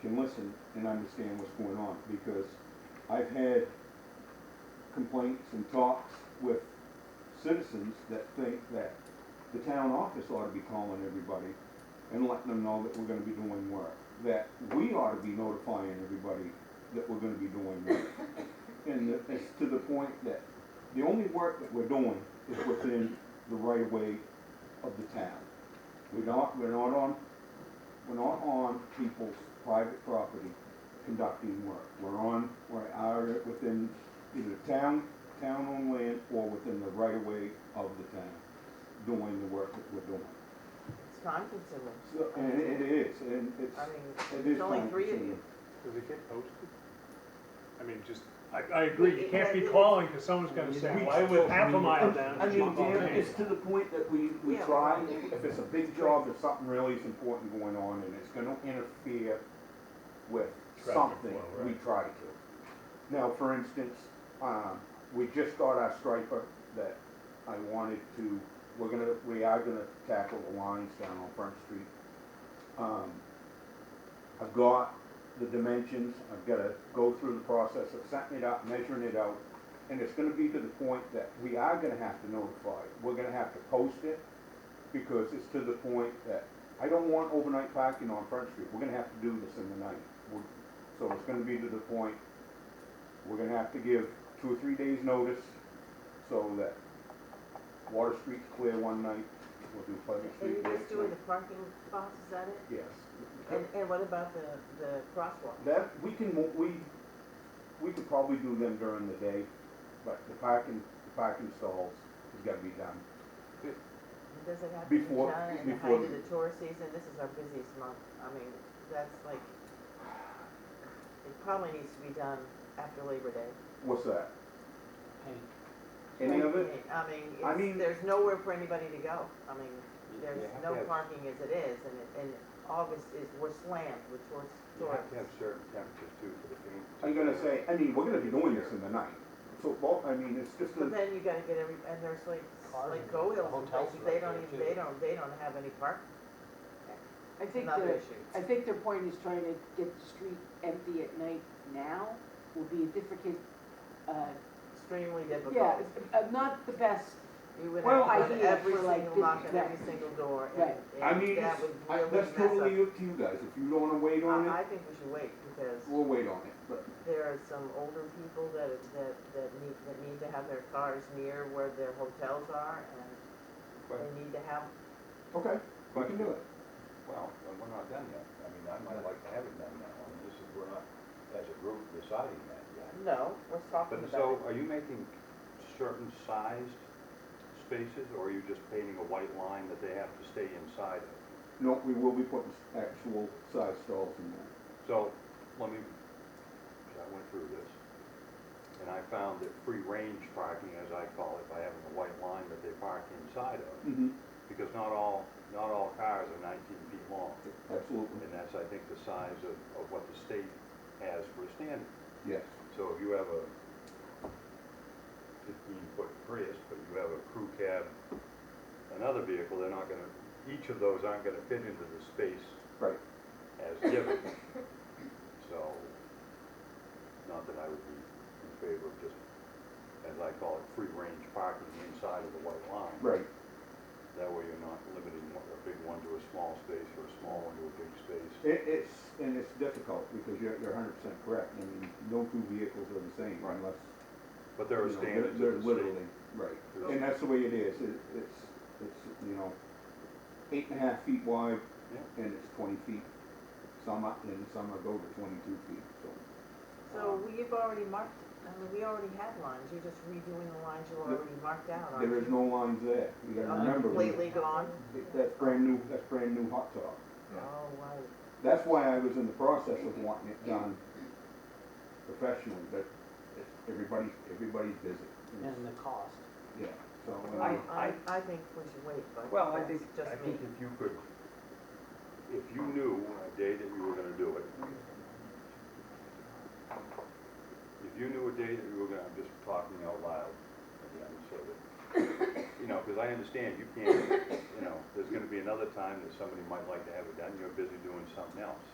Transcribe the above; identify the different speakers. Speaker 1: can listen and understand what's going on, because I've had complaints and talks with citizens that think that the town office ought to be calling everybody and letting them know that we're gonna be doing work, that we ought to be notifying everybody that we're gonna be doing work. And the- it's to the point that the only work that we're doing is within the right of way of the town. We're not, we're not on, we're not on people's private property conducting work. We're on, we're out within either town, town-owned land or within the right of way of the town, doing the work that we're doing.
Speaker 2: It's time consuming.
Speaker 1: So, and it is, and it's,
Speaker 2: I mean,
Speaker 1: it is.
Speaker 2: there's only three of
Speaker 1: time-consuming.
Speaker 2: you.
Speaker 3: Does it get posted? I mean, just, I, I agree, you can't be
Speaker 2: Yeah,
Speaker 3: calling, because someone's gonna say, why was half a mile down?
Speaker 1: I
Speaker 3: and
Speaker 1: mean,
Speaker 3: jump on
Speaker 1: Dan,
Speaker 3: me?"
Speaker 1: it's to the point that we, we
Speaker 2: Yeah.
Speaker 1: try, if it's a big job, if something really is important going on and it's gonna interfere with
Speaker 3: Traffic
Speaker 1: something,
Speaker 3: flow,
Speaker 1: we
Speaker 3: right.
Speaker 1: try to. Now, for instance, um, we just got our striper that I wanted to, we're gonna, we are gonna tackle the lines down on Front Street. Um, I've got the dimensions, I've gotta go through the process of setting it up, measuring it out, and it's gonna be to the point that we are gonna have to notify, we're gonna have to post it, because it's to the point that I don't want overnight parking on Front Street, we're gonna have to do this in the night. We're- So it's gonna be to the point, we're gonna have to give two or three days' notice, so that Water Street's clear one night, we'll do Pleasant
Speaker 2: And
Speaker 1: Street
Speaker 2: you're just
Speaker 1: next
Speaker 2: doing
Speaker 1: night.
Speaker 2: the parking spots, is that it?
Speaker 1: Yes.
Speaker 2: And, and what about the, the crosswalk?
Speaker 1: That, we can, mo- we, we could probably do them during the day, but the parking, the parking stalls has gotta be done.
Speaker 2: Does it happen in
Speaker 1: Before-
Speaker 2: China in the height
Speaker 1: before-
Speaker 2: of the tourist season? This is our busiest month. I mean, that's like, it probably needs to be done after Labor Day.
Speaker 1: What's that? Any of it?
Speaker 2: I mean,
Speaker 1: I
Speaker 2: it's,
Speaker 1: mean-
Speaker 2: there's nowhere for anybody to go. I mean, there's
Speaker 4: You have
Speaker 2: no
Speaker 4: to have-
Speaker 2: parking as it is, and, it- and August is, we're slammed with tourists.
Speaker 4: You have to
Speaker 2: tourists.
Speaker 4: have certain temperatures too for the paint.
Speaker 1: I'm gonna say, I mean, we're gonna be doing this in the night, so, well, I mean, it's just
Speaker 2: But
Speaker 1: a,
Speaker 2: then you gotta get every, and there's like,
Speaker 5: Cars
Speaker 2: like
Speaker 5: and
Speaker 2: Go Hills and
Speaker 5: hotels
Speaker 2: places,
Speaker 5: are
Speaker 2: they
Speaker 5: up
Speaker 2: don't
Speaker 5: there,
Speaker 2: even,
Speaker 5: too.
Speaker 2: they don't, they don't have any park,
Speaker 6: I think
Speaker 2: another
Speaker 6: the,
Speaker 2: issue.
Speaker 6: I think their point is trying to get the street empty at night now will be a difficult, uh,
Speaker 2: Extremely difficult.
Speaker 6: yeah, it's, uh, not the best.
Speaker 2: You would
Speaker 6: Well,
Speaker 2: have to put
Speaker 6: idea
Speaker 2: every
Speaker 6: for, like,
Speaker 2: single lock
Speaker 6: business
Speaker 2: and every
Speaker 6: that-
Speaker 2: single door, and,
Speaker 6: Right.
Speaker 1: I
Speaker 2: and
Speaker 1: mean,
Speaker 2: that
Speaker 1: it's,
Speaker 2: would
Speaker 1: I-
Speaker 2: really
Speaker 1: that's
Speaker 2: mess up.
Speaker 1: totally up to you guys, if you don't wanna wait on
Speaker 2: I, I
Speaker 1: it,
Speaker 2: think we should wait, because
Speaker 1: we'll wait on it, but
Speaker 2: there are some older people that, that, that need, that need to have their cars near where their hotels are, and
Speaker 4: But-
Speaker 2: they need to have,
Speaker 1: Okay, we can do it.
Speaker 4: Well, but we're not done yet. I mean, I might like to have it done now. I mean, this is, we're not, as a group, deciding that yet.
Speaker 2: no, we're talking about
Speaker 4: But so
Speaker 2: it.
Speaker 4: are you making certain sized spaces or are you just painting a white line that they have to stay inside of?
Speaker 1: No, we will be putting actual size stalls in there.
Speaker 4: So, let me, 'cause I went through this, and I found that free range parking, as I call it, by having a white line that they park inside of,
Speaker 1: Mm-hmm.
Speaker 4: because not all, not all cars are nineteen feet long,
Speaker 1: Absolutely,
Speaker 4: and that's, I think, the size of, of what the state has for a standard.
Speaker 1: yes.
Speaker 4: So if you have a fifteen foot Prius, but you have a crew cab, another vehicle, they're not gonna, each of those aren't gonna fit into the space
Speaker 1: Right.
Speaker 4: as given. So, not that I would be in favor of just, as I call it, free range parking inside of the white line.
Speaker 1: Right,
Speaker 4: That way you're not limiting one- a big one to a small space or a small one to a big space.
Speaker 1: it, it's, and it's difficult because you're, you're hundred percent correct, I mean, no two vehicles are the same
Speaker 4: Right.
Speaker 1: unless.
Speaker 4: But there
Speaker 1: you
Speaker 4: are
Speaker 1: know, they're-
Speaker 4: standards
Speaker 1: they're
Speaker 4: in the
Speaker 1: Literally,
Speaker 4: state.
Speaker 1: right,
Speaker 4: There's-
Speaker 1: and that's the way it is, it, it's, it's, you know, eight and a half feet wide
Speaker 4: Yeah.
Speaker 1: and it's twenty feet. Some up and some are go to twenty-two feet, so.
Speaker 2: So we've already marked, I mean, we already had lines, you're just redoing the lines you
Speaker 1: There-
Speaker 2: already marked out, aren't you?
Speaker 1: There is no lines there, you gotta
Speaker 2: Are they
Speaker 1: remember.
Speaker 2: Completely gone?
Speaker 1: That's brand new, that's brand new hot top.
Speaker 2: Oh, right.
Speaker 1: That's why I was in the process of wanting it done professionally, but it's- everybody's, everybody's busy.
Speaker 5: and the cost.
Speaker 1: Yeah, so,
Speaker 4: I-
Speaker 1: uh,
Speaker 2: I, I think we should wait, but
Speaker 4: Well, I
Speaker 2: that's
Speaker 4: think,
Speaker 2: just
Speaker 4: I
Speaker 2: me.
Speaker 4: think if you could, if you knew a day that you were gonna do it, if you knew a day that you were gonna, I'm just talking out loud again, so that, you know, because I understand you can't, you know, there's gonna be another time that somebody might like to have it done, you're busy doing something else.